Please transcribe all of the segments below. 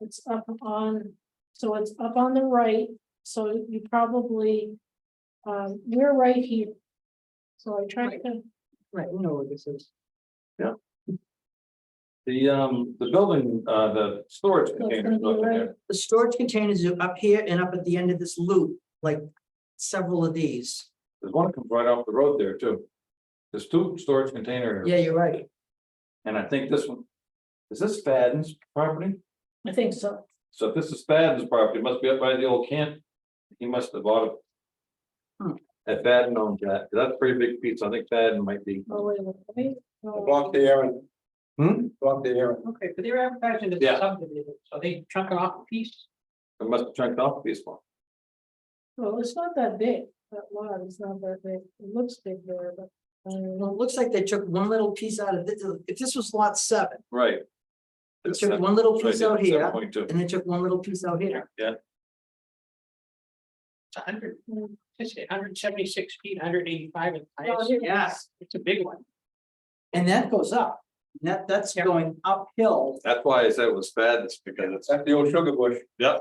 It's up on, so it's up on the right, so you probably, um, you're right here. So I tried to, Right, we know what this is. The, um, the building, uh, the storage gonna be containers up right. there. The storage containers are up here and up at the end of this loop, like several of these. There's one that comes right off the road there too. There's two storage containers, Yeah, you're right. and I think this one, is this Fadden's property? I think so. So if this is Fadden's property, it must be up by the old camp. He must have bought Hmm. it. At Fadden owns that, 'cause that's a pretty big piece. I think Fadden might be. Oh, wait, wait, wait. I Block um, the air and Hmm, block the air. Okay, but they're advertising it Yeah. as subdivision, so they chunk it off a piece. it must have chunked off this one. Well, it's not that big, that lot is not that big, it looks big there, but. I don't Well, know. it looks like they took one little piece out of this, if this was lot seven, Right. they took one little piece out here Point two, and they took one little piece out here. yeah, It's a hundred, it's a hundred seventy-six feet, hundred eighty-five in Oh, height. here it yeah. is. It's a big one. And that goes up. That, that's Yeah. going uphill. that's why I said it was Fadden's because it's, That's the old sugar bush. yeah,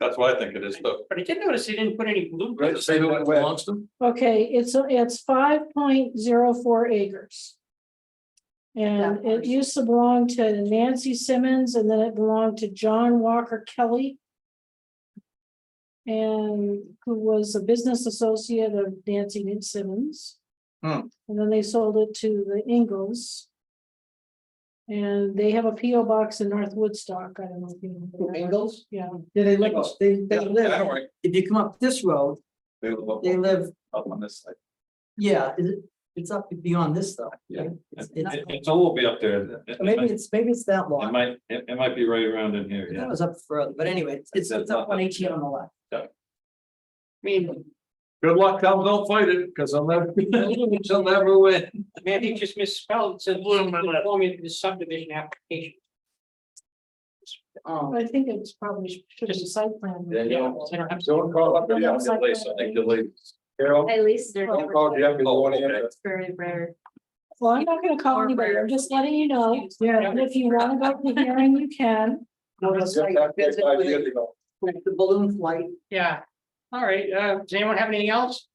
that's why I think it is though. But I did notice they didn't put any Right, blueberries. say that belongs to? Okay, it's, it's five point zero four acres. And it used to belong to Nancy Simmons and then it belonged to John Walker Kelly. And who was a business associate of Nancy Simmons. Hmm. And then they sold it to the Ingalls. And they have a P O box in North Woodstock, I don't know if you know. that. Angles? Yeah, Yeah, they live, they, they Yeah, don't live, worry. if you come up this road, They live they live, Up on this side. yeah, is it- it's up beyond this though. Yeah. It's- It- it's- it- It's a little bit up there. It- it Maybe might- it's, maybe it's that It long. might, it, it might be right around in here, That yeah. was up further, but anyway, it's- it's, it's up one eighteen on the left. I mean, Good luck, Tom, don't fight it, because I'll never, I'll never win. Mandy just misspelled, it said conforming to the subdivision application. Um, I think it's probably should be site plan. Yeah, yeah. Well, they don't have to- Don't call up your Yeah. house. Carol, At least they're don't never, call Jeff. He's the one Oh, okay. answer. it's very rare. Well, I'm not gonna call anybody, I'm just letting you know, Yeah. and if you wanna go to the hearing, you can. no, it's Just like that place visit five with- years ago. with The balloon flight, Yeah, all right, uh, does anyone have anything else?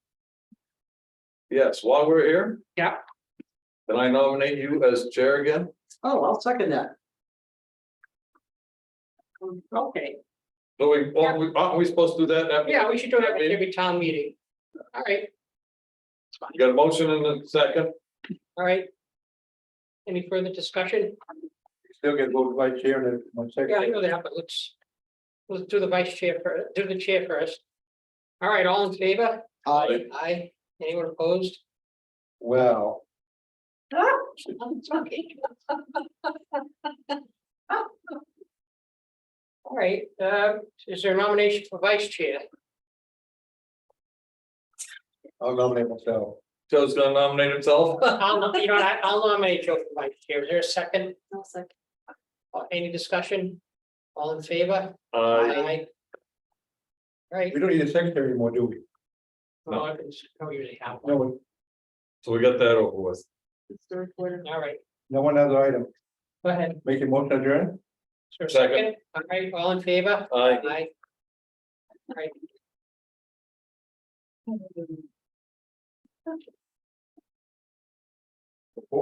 Yes, while we're here. Yeah. Then I nominate you as chair again. oh, I'll second that. Okay, So we, aren't we, aren't we supposed to do that? after- yeah, we should do that at every town meeting. All right, You got a motion in a second, all right. Any further discussion? Still get voted by chair and then one Yeah, I second. know that, but let's, let's do the vice chair first, do the chair first. All right, all in favor? Aye. Aye, anyone opposed? Well, All right, um, is there a nomination for vice chair? I'll nominate myself. Joe's gonna nominate himself. I'll, nom- you know, what, I- I'll nominate Joe for vice chair, is there a second, I'll second. Uh, any discussion? All in favor? Uh, All Right, We don't need a secretary anymore, do we? well, I can s- don't usually have one, No, so we got that over with. It's the recorder. all right, no one other item. go ahead, Make a motion adjourn. is there a Second. second, all right, all in favor? Aye. Aye. All right,